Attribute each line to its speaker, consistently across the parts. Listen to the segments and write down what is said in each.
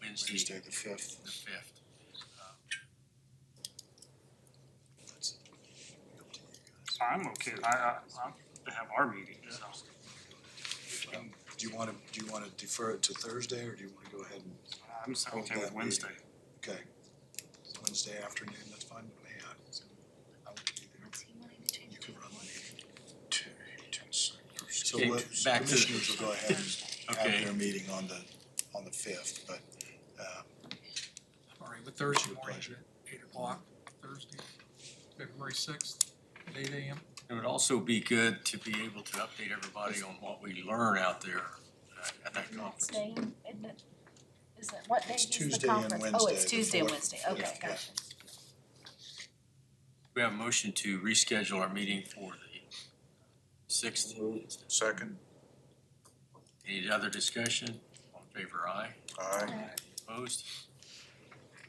Speaker 1: Wednesday, the fifth.
Speaker 2: the fifth.
Speaker 3: I'm okay, I, I, I'm to have our meeting, so.
Speaker 1: Um, Do you wanna, do you wanna defer it to Thursday, or do you wanna go ahead and,
Speaker 3: I'm so okay with Wednesday.
Speaker 1: okay? Wednesday afternoon, that's fine with me, I, I would be there. You can run the meeting. So
Speaker 2: Okay,
Speaker 1: what,
Speaker 2: back to the-
Speaker 1: commissioners will go ahead and have
Speaker 2: Okay.
Speaker 1: their meeting on the, on the fifth, but, um,
Speaker 4: All right, but Thursday
Speaker 1: Your
Speaker 4: morning,
Speaker 1: pleasure.
Speaker 4: at eight o'clock, Thursday, February sixth, at eight AM.
Speaker 2: It would also be good to be able to update everybody on what we learn out there uh, at that conference.
Speaker 5: Next day, isn't it? Is that, what day
Speaker 1: It's
Speaker 5: is
Speaker 1: Tuesday
Speaker 5: the
Speaker 1: and
Speaker 5: conference? Oh,
Speaker 1: Wednesday,
Speaker 5: it's
Speaker 1: the
Speaker 5: Tuesday and
Speaker 1: fourth.
Speaker 5: Wednesday, okay,
Speaker 1: Yeah, yeah.
Speaker 5: gotcha.
Speaker 2: We have a motion to reschedule our meeting for the sixth.
Speaker 6: Second,
Speaker 2: Any other discussion? All in favor, aye.
Speaker 6: aye.
Speaker 2: Opposed?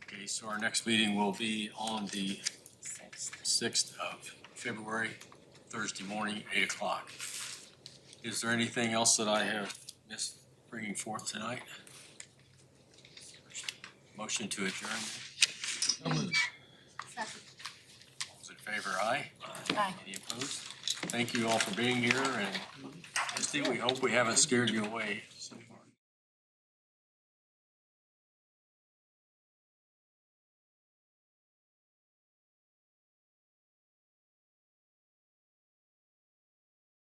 Speaker 2: Okay, so our next meeting will be on the
Speaker 5: Sixth.
Speaker 2: sixth of February, Thursday morning, eight o'clock. Is there anything else that I have missed bringing forth tonight? Motion to adjourn, all those in favor, aye?
Speaker 5: Aye.
Speaker 2: Any opposed? Thank you all for being here, and Misty, we hope we haven't scared you away.